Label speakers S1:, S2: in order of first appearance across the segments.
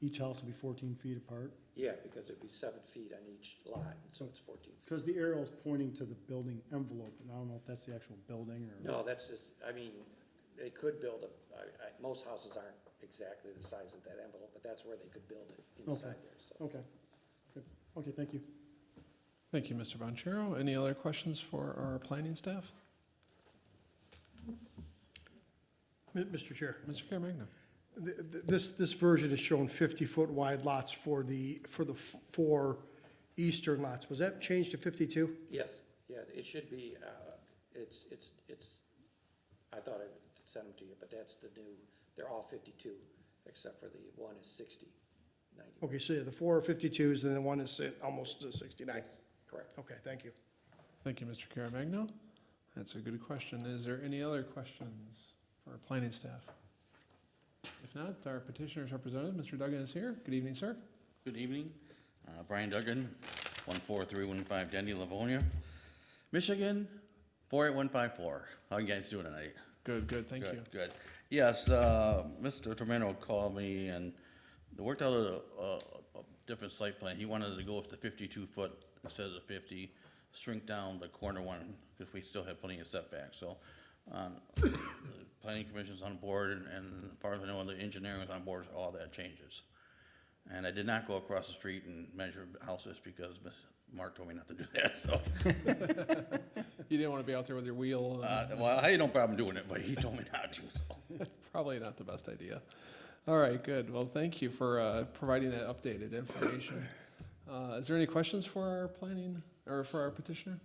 S1: each house will be fourteen feet apart?
S2: Yeah, because it'd be seven feet on each lot, so it's fourteen. feet.
S1: Because the arrow's pointing to the building envelope, and I don't know if that's the actual building or.
S2: No, that's just, I mean, they could build a, I, I, most houses aren't exactly the size of that envelope, but that's where they could build it inside there, so.
S1: Okay, good, okay, thank you.
S3: Thank you, Mr. Bonjero. Any other questions for our planning staff?
S4: Mi- Mr. Chair,
S3: Mr. Caremagna?
S4: th- th- this, this version is showing 50-foot wide lots for the, for the f- four eastern lots. Was that changed to 52?
S2: Yes, yeah, it should be, uh, it's, it's, it's, I thought I sent them to you, but that's the new, they're all fifty-two, except for the one is 60, 90.
S4: Okay, so yeah, the four are 52s, and then one is si- almost uh, 69.
S2: Yes, Correct.
S4: Okay, thank you.
S3: Thank you, Mr. Caremagna. That's a good question. Is there any other questions for our planning staff? If not, our petitioner's representative, Mr. Duggan, is here. Good evening, sir.
S5: Good evening. Uh, Brian Duggan, 14315 Denny, Livonia, Michigan, 48154. How you guys doing tonight?
S3: Good, good, thank you.
S5: Good, good. Yes, uh, Mr. Tormento called me and they worked out a, a, a different site plan. He wanted to go with the fifty-two foot instead of the fifty, shrink down the corner one, because we still have plenty of setbacks, so. Um, the planning commission's on board and, and as far as I know, the engineering is on board, with all that changes. And I did not go across the street and measure houses because Ms. Mark told me not to do that, so.
S3: You didn't want to be out there with your wheel.
S5: Uh, well, I had no problem doing it, but he told me not to, so.
S3: Probably not the best idea. All right, good. Well, thank you for uh, providing that updated information. Uh, Is there any questions for our planning, or for our petitioner?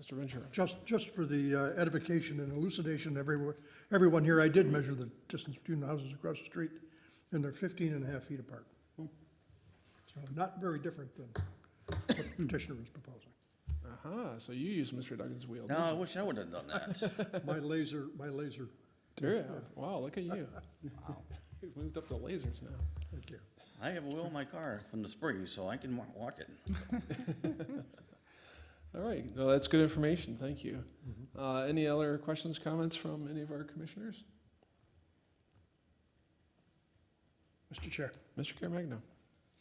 S3: Mr. Ventura?
S6: Just, just for the uh, edification and elucidation, everyone, everyone here, I did measure the distance between the houses across the street, and they're 15 and a half feet apart. So not very different than what the petitioner is proposing.
S3: Uh-huh, so you used Mr. Duggan's wheel.
S5: No, I wish I would have done that.
S6: My laser, my laser,
S3: didn't you? Yeah, Wow, look at you. You've moved up to lasers now.
S6: thank you.
S5: I have a wheel in my car from the spring, so I can wa- walk it.
S3: All right, no, that's good information, thank you. Uh, Any other questions, comments from any of our commissioners?
S4: Mr. Chair.
S3: Mr. Caremagna?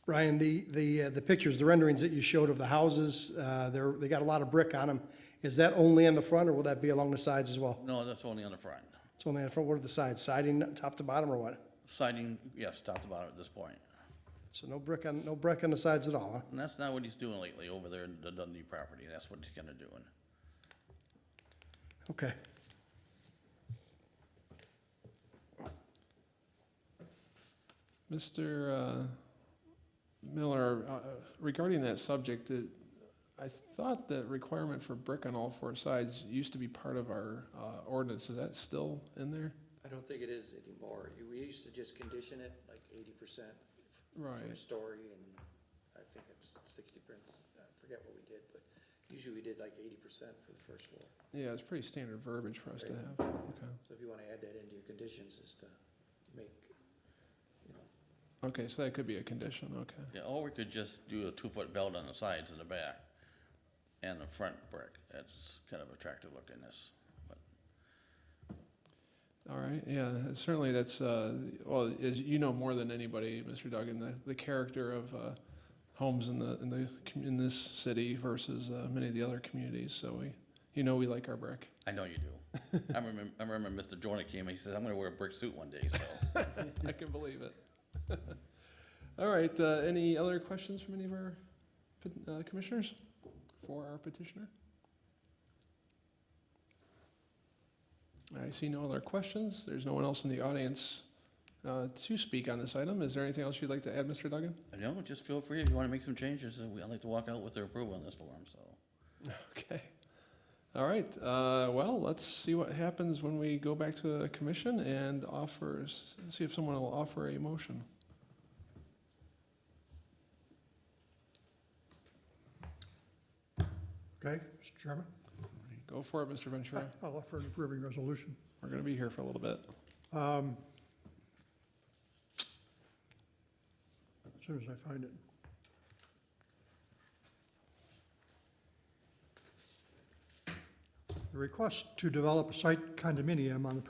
S4: Ryan, the, the, uh, the pictures, the renderings that you showed of the houses, uh, they're, they got a lot of brick on them. Is that only in the front, or will that be along the sides as well?
S5: No, that's only on the front.
S4: It's only in the front, what are the sides, siding, uh, top to bottom, or what?
S5: Siding, yes, top to bottom at this point.
S4: So no brick on, no brick on the sides at all, huh?
S5: And that's not what he's doing lately over there in the Dundee property. That's what he's kind of doing.
S4: Okay.
S3: Mr. uh, Miller, uh, regarding that subject, it- I thought that requirement for brick on all four sides used to be part of our uh, ordinance. Is that still in there?
S2: I don't think it is anymore. We used to just condition it like eighty percent for
S3: Right.
S2: story, and I think it's sixty percent, I forget what we did, but usually we did like eighty percent for the first floor.
S3: Yeah, it's pretty standard verbiage for us to have. Okay.
S2: So if you wanna add that into your conditions, is to make, you know,
S3: Okay, so that could be a condition, okay.
S5: Yeah, or we could just do a two-foot belt on the sides and the back and the front brick. That's kind of attractive looking, this. But
S3: All right, yeah, certainly that's, uh, well, as you know more than anybody, Mr. Duggan, the, the character of, uh, homes in the, in the, commu- in this city versus, uh, many of the other communities, so we, you know, we like our brick.
S5: I know you do. I remember, I remember Mr. Jordan came and he said, I'm gonna wear a brick suit one day, so.
S3: I can believe it. All right, uh, any other questions from any of our pet- uh, commissioners for our petitioner? I see no other questions. There's no one else in the audience uh, to speak on this item. Is there anything else you'd like to add, Mr. Duggan?
S5: No, just feel free if you wanna make some changes. uh, we- I'd like to walk out with their approval on this form, so.
S3: Okay. All right, uh, well, let's see what happens when we go back to the commission and offers, see if someone will offer a motion.
S6: Okay, Mr. Chairman,
S3: Go for it, Mr. Ventura.
S6: I'll offer an approving resolution.
S3: We're gonna be here for a little bit.
S6: Um, As soon as I find it. The request to develop a site condominium on the